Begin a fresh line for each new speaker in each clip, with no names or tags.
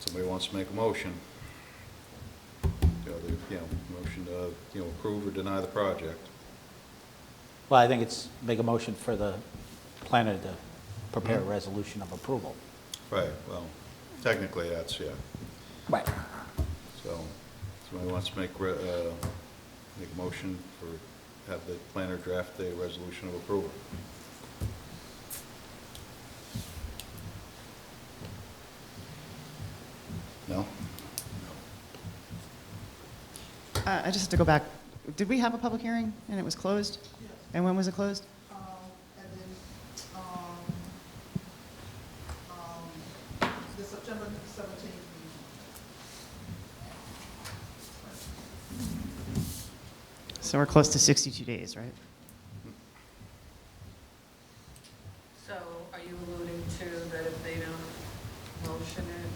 Somebody wants to make a motion? You know, the- you know, motion to, you know, approve or deny the project.
Well, I think it's, make a motion for the planner to prepare a resolution of approval.
Right, well, technically, that's, yeah.
Right.
So, somebody wants to make, re- uh, make a motion for, have the planner draft a resolution of approval. No?
Uh, I just have to go back. Did we have a public hearing and it was closed? And when was it closed?
Um, and then, um, um, the September seventeenth meeting.
So we're close to 62 days, right?
So are you alluding to that if they don't motion it,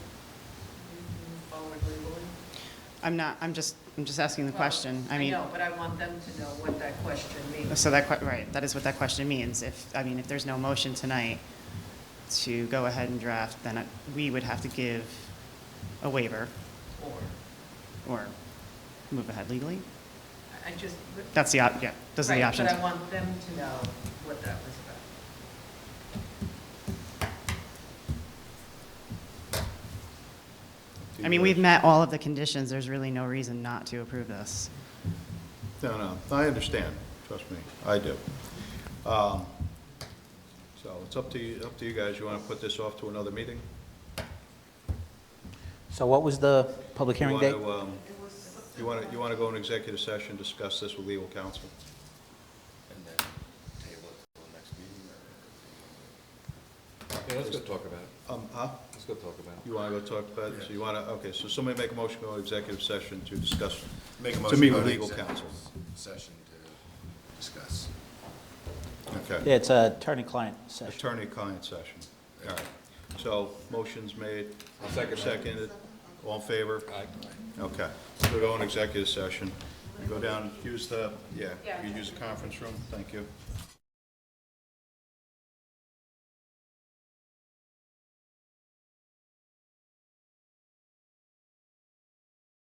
you can move forward legally?
I'm not, I'm just, I'm just asking the question. I mean,
know, but I want them to know what that question means.
so that, que- right, that is what that question means. If, I mean, if there's no motion tonight to go ahead and draft, then it- we would have to give a waiver
Or,
or move ahead legally.
I- I just.
That's the, op- yeah, those are the
Right,
options.
But I want them to know what that was about.
I mean, we've met all of the conditions. There's really no reason not to approve this.
No, no, I understand, trust me, I do. Um, So it's up to you, up to you guys, you want to put this off to another meeting?
So what was the public hearing date?
You want to, you want to, you want to go in executive session, discuss this with legal counsel?
And then table it till the next meeting or? let's go talk about it.
Um, huh?
Let's go talk about it.
You want to go talk about, it? so you want to, okay, so somebody make a motion, to go to executive session to discuss,
Make a
to
motion.
meet
to
with
go to
legal
executive
counsel.
Session to discuss.
Okay.
Yeah, It's a attorney-client session.
Attorney-client session, all right. So, motion's made.
I'll second that.
Seconded, all in favor?
Aye.
Okay, so go in executive session, go down, use the, yeah,
Yeah.
you use the conference room, thank you.